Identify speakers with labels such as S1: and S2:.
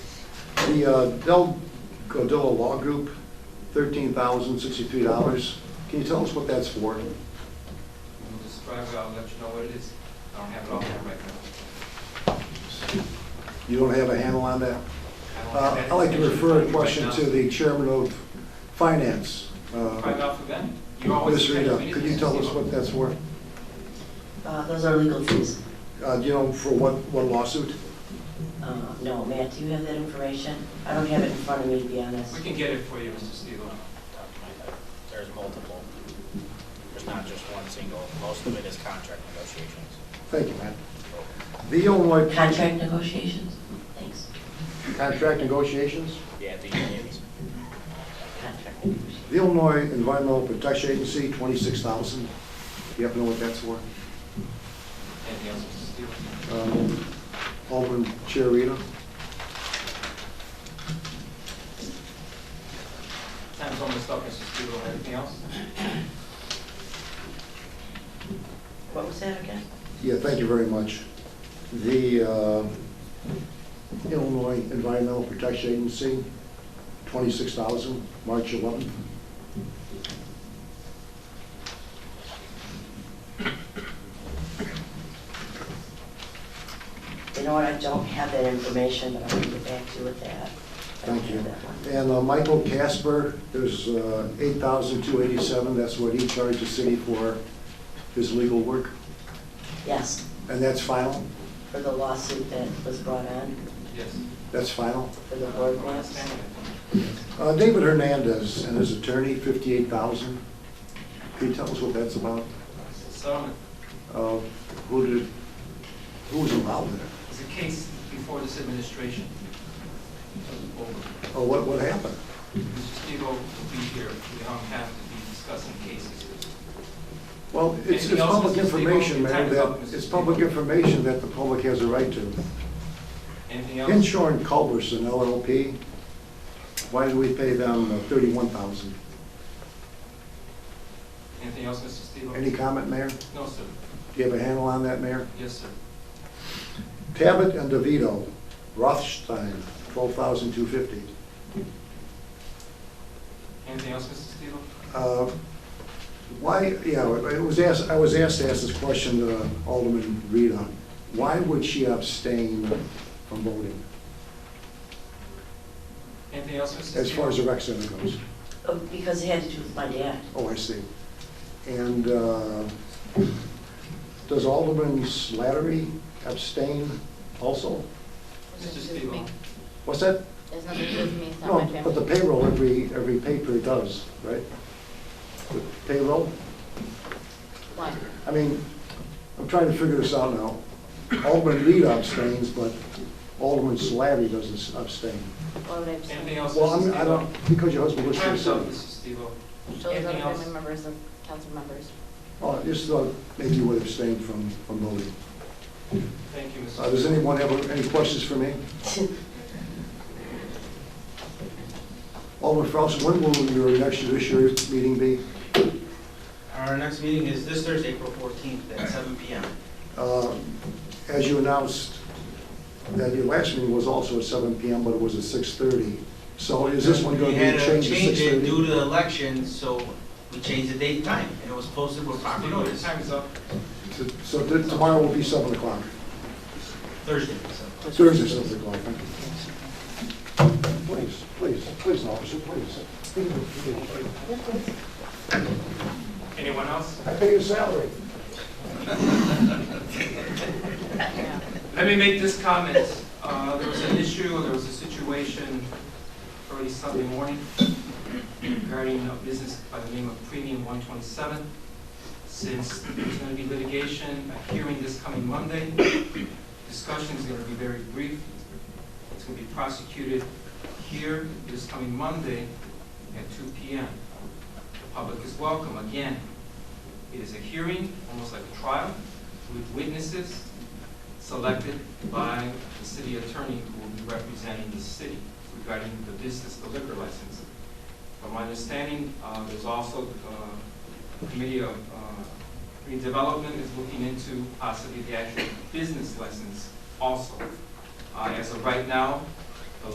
S1: The uh, Del Godilla Law Group, $13,063. Can you tell us what that's for?
S2: We'll just drive it, I'll let you know what it is. I don't have it off hand right now.
S1: You don't have a handle on that?
S2: I don't have
S1: Uh,
S2: that
S1: I'd like to
S2: information
S1: refer a
S2: right
S1: question
S2: now.
S1: to the Chairman of Finance.
S2: Drive
S1: Uh,
S2: out for Ben. You always
S1: Ms.
S2: attend
S1: Rita,
S2: meetings,
S1: could you tell us what that's for?
S3: Uh, Those are legal fees.
S1: Uh, Do you know for what what lawsuit?
S3: Uh, No, Matt, do you have that information? I don't have it in front of me, to be honest.
S2: We can get it for you, Mr. Steele.
S4: There's multiple. There's not just one single. Most of it is contract negotiations.
S1: Thank you, Matt. The Illinois
S3: Contract negotiations? Thanks.
S1: Contract Negotiations?
S4: Yeah, the unions.
S3: Contract negotiations.
S1: The Illinois Environmental Protection Agency, $26,000. Do you happen to know what that's for?
S2: Anything else, Mr. Steele?
S1: Um, Alderman Chiarina?
S2: Time's almost up, Mr. Steele. Anything else?
S3: What was that again?
S1: Yeah, thank you very much. The uh, Illinois Environmental Protection Agency, 26000 March 11th.
S3: You know what, I don't have that information, but I'll get back to you with that. I don't
S1: Thank you.
S3: have that one.
S1: And uh, Michael Casper, there's uh, 8287 that's what he charged the city for his legal work.
S3: Yes,
S1: And that's final?
S3: for the lawsuit that was brought on
S2: Yes.
S1: That's final?
S3: for the board
S2: I don't
S3: maps.
S2: understand it.
S1: Uh, David Hernandez and his attorney, 58000 Can you tell us what that's about?
S2: It's a settlement.
S1: Uh, Who did, who was involved in it?
S2: It's a case before this administration. Over.
S1: Or what, what happened?
S2: Mr. Steele will be here, we don't have to be discussing cases.
S1: Well, it's,
S2: Anything
S1: it's
S2: else,
S1: public
S2: Mrs. Stevens?
S1: information,
S2: Your time
S1: man,
S2: is
S1: that,
S2: up, Mrs.
S1: it's public
S2: Stevens.
S1: information that the public has a right to.
S2: Anything else?
S1: Inshore and Culberson LLP, why did we pay them thirty-one thousand?
S2: Anything else, Mr. Steele?
S1: Any comment, Mayor? Do
S2: No, sir.
S1: you have a handle on that, Mayor?
S2: Yes, sir.
S1: Tabit and DeVito, Rothstein, twelve thousand two fifty.
S2: Anything else, Mr. Steele?
S1: Uh, Why, yeah, it was asked, I was asked to ask this question to Alderman Rita. Why would she abstain from voting,
S2: Anything else, Mr. Steele?
S1: as far as the rec center goes?
S3: Oh, Because it had to do with my dad.
S1: Oh, I see. And uh, does Alderman Slattery abstain also?
S2: Mr. Steele,
S1: What's that?
S5: There's nothing to do with me, it's not my
S1: No, but the
S5: family.
S1: payroll, every, every pay period does, right? The Payroll?
S5: One.
S1: I mean, I'm trying to figure this out now. Alderman Reed abstains, but Alderman Slattery doesn't abstain.
S5: Why would I abstain?
S2: anything else,
S1: Well,
S2: Mr.
S1: I'm,
S2: Steele?
S1: I don't, because your husband
S2: Your
S1: was here,
S2: time's up,
S1: so.
S2: Mr. Steele.
S5: Shows other
S2: Anything else?
S5: family members of council members.
S1: Oh, I just thought maybe you would abstain from, from voting.
S2: Thank you, Mr.
S1: Uh, Does
S2: Steele.
S1: anyone have any questions for me? Alderman Frost, when will your next judiciary meeting be?
S6: Our next meeting is this Thursday, April 14th at seven PM.
S1: Uh, As you announced, that your last meeting was also at 7 PM, but it was at 6:30. So is this one going
S6: We
S1: to
S6: had
S1: be changed to
S6: change it Due
S1: 6:30?
S6: to the election, so we changed the date and time, and it was posted with proper
S2: You know, your
S6: notice,
S2: time is up.
S1: So- So th- tomorrow will be 7 o'clock,
S6: Thursday, so.
S1: Thursday, 7 o'clock. thank you. Please, please, please, officer, please.
S2: Anyone else?
S1: I pay your salary.
S2: Let me make this comment. Uh, There was an issue, there was a situation early Sunday morning regarding a business by the name of Premium 127. Since there's going to be litigation, a hearing this coming Monday, discussion is going to be very brief. It's going to be prosecuted here this coming Monday at 2 PM. The public is welcome. Again, it is a hearing, almost like a trial, with witnesses selected by the city attorney who will be representing the city regarding the business, the liquor license. From my understanding, uh, there's also uh, a committee of uh, redevelopment is looking into possibly the actual business license also. Uh, As of right now,